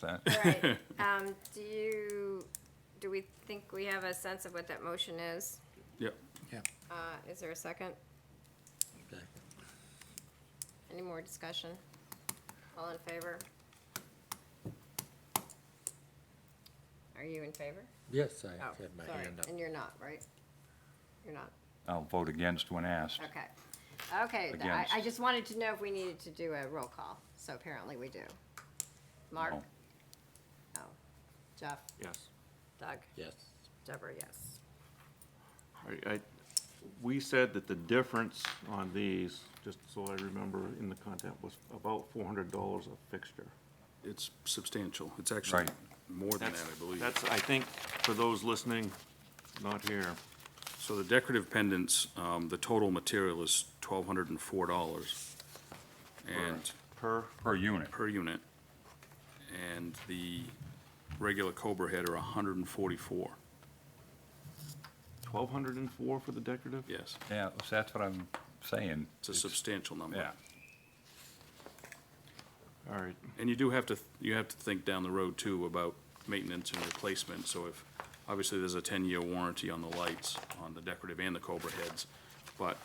that. Right. Um, do you, do we think we have a sense of what that motion is? Yeah, Yeah. Uh, is there a second? Okay. Any more discussion? All in favor? Are you in favor? Yes, I Oh, had my sorry, hand up. and you're not, right? You're not, I'll vote against when asked. okay. Okay, th- I, I Against. just wanted to know if we needed to do a roll call, so apparently we do. Mark? No. No. Jeff? Yes. Doug? Yes. Deborah, yes. I, I, we said that the difference on these, just so I remember in the content, was about four hundred dollars a fixture. It's substantial. It's actually Right. more than that, That's- I believe. That's, I think, for those listening, not here, So the decorative pendants, um, the total material is twelve hundred and four dollars and, per, Per unit, per unit. And the regular Cobra head are hundred and forty-four, twelve hundred and four for the decorative? yes. yeah, that's what I'm saying. It's a substantial number. Yeah, All right, And you do have to, you have to think down the road too about maintenance and replacement, so if, obviously, there's a ten-year warranty on the lights, on the decorative and the Cobra heads, but,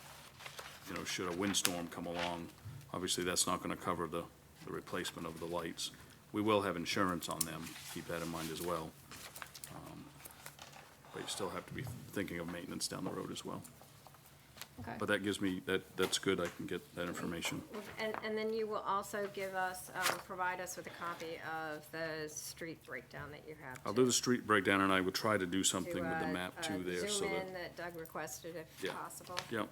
you know, should a windstorm come along, obviously, that's not gonna cover the, the replacement of the lights. We will have insurance on them, keep that in mind as well. Um, But you still have to be thinking of maintenance down the road as well. Okay. But that gives me, that, that's good, I can get that information. And, and then you will also give us, um, provide us with a copy of the street breakdown that you have. I'll to- do the street breakdown, and I would try to do to, something with the uh, map uh, too there, so Zoom that. in that Doug requested if Yeah. possible. Oh, Yep.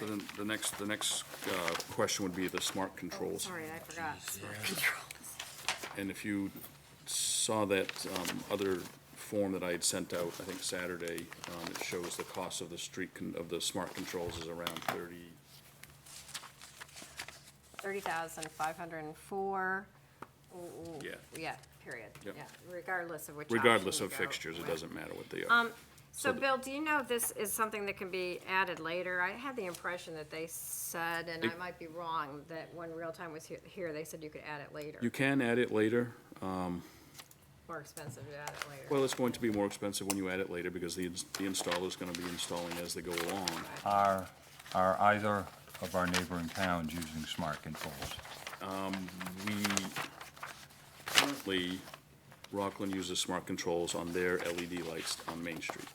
So then the next, the next uh, question would be the smart Oh, controls. Sorry, I forgot. And if you saw that um, other form that I had sent out, I think Saturday, um, it shows the cost of the street, con- of the smart controls is around 30, Thirty thousand five hundred and four. yeah. Yeah, period, Yep. yeah, regardless of which option Regardless you of go Um, fixtures, it with. doesn't matter what they are. So So the- Bill, do you know if this is something that can be added later? I had the impression that they said, and I It- might be wrong, that when real time was he- here, they said you could add it later. You can add it later. More expensive to add it later. Well, it's going to be more expensive when you add it later because the ins- the installer's going to be installing as they go along. Are, are either of our neighboring towns using smart controls? We, currently, Rockland uses smart controls on their LED lights on Main Street.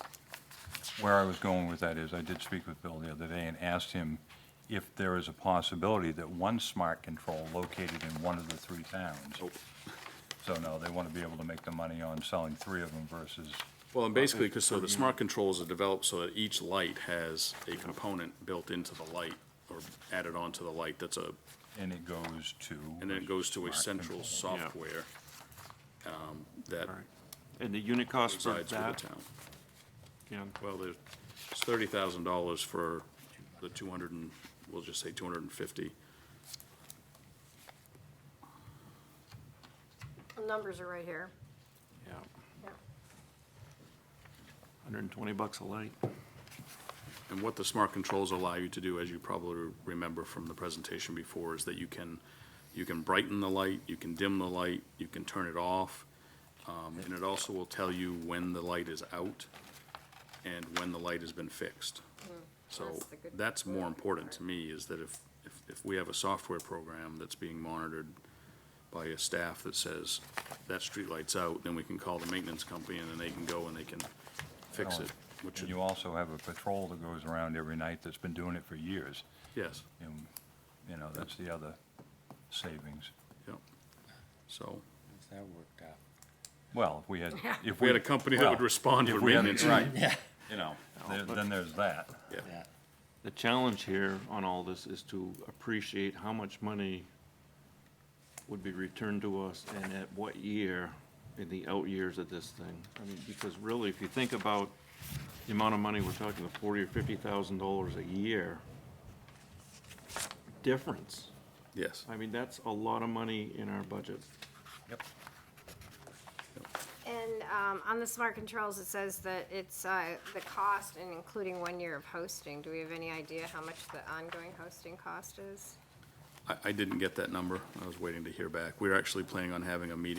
Where I was going with that is, I did speak with Bill the other day and asked him if there is a possibility that one smart control located in one of the three towns. Nope. So no, they want to be able to make the money on selling three of them versus, Well, and basically, because so the smart controls are developed so that each light has a component built into the light or added onto the light that's a, and it goes to. and then it goes to a smart central control. software um, that all right. And the unit cost for resides with that, the town. Ken? Well, there's thirty thousand dollars for the two hundred and, we'll just say two hundred and fifty. The Numbers are right here. Yeah. Hundred and twenty bucks a light. And what the smart controls allow you to do, as you probably remember from the presentation before, is that you can, you can brighten the light, you can dim the light, you can turn it off. Um, and it also will tell you when the light is out and when the light has been fixed. So Mm, That's the good- that's more important to me, is that if, if, if we have a software program that's being monitored by a staff that says, that street light's out, then we can call the maintenance company and then they can go and they can fix it, which And is, you also have a patrol that goes around every night that's been doing it for years. yes. And, you know, that's the other savings. Yep. So, That worked out. Well, if we had, if we we. had a company that would well, respond if to we had- maintenance. Right, Yeah. you know, there- then there's that. Yeah. Yeah. The challenge here on all this is to appreciate how much money would be returned to us and at what year in the out years of this thing. I mean, because really, if you think about the amount of money we're talking, the forty or fifty thousand dollars a year difference. Yes. I mean, that's a lot of money in our budget. Yep. And um, on the smart controls, it says that it's uh, the cost and including one year of hosting. Do we have any idea how much the ongoing hosting cost is? I, I didn't get that number. I was waiting to hear back. We were actually planning on having a meeting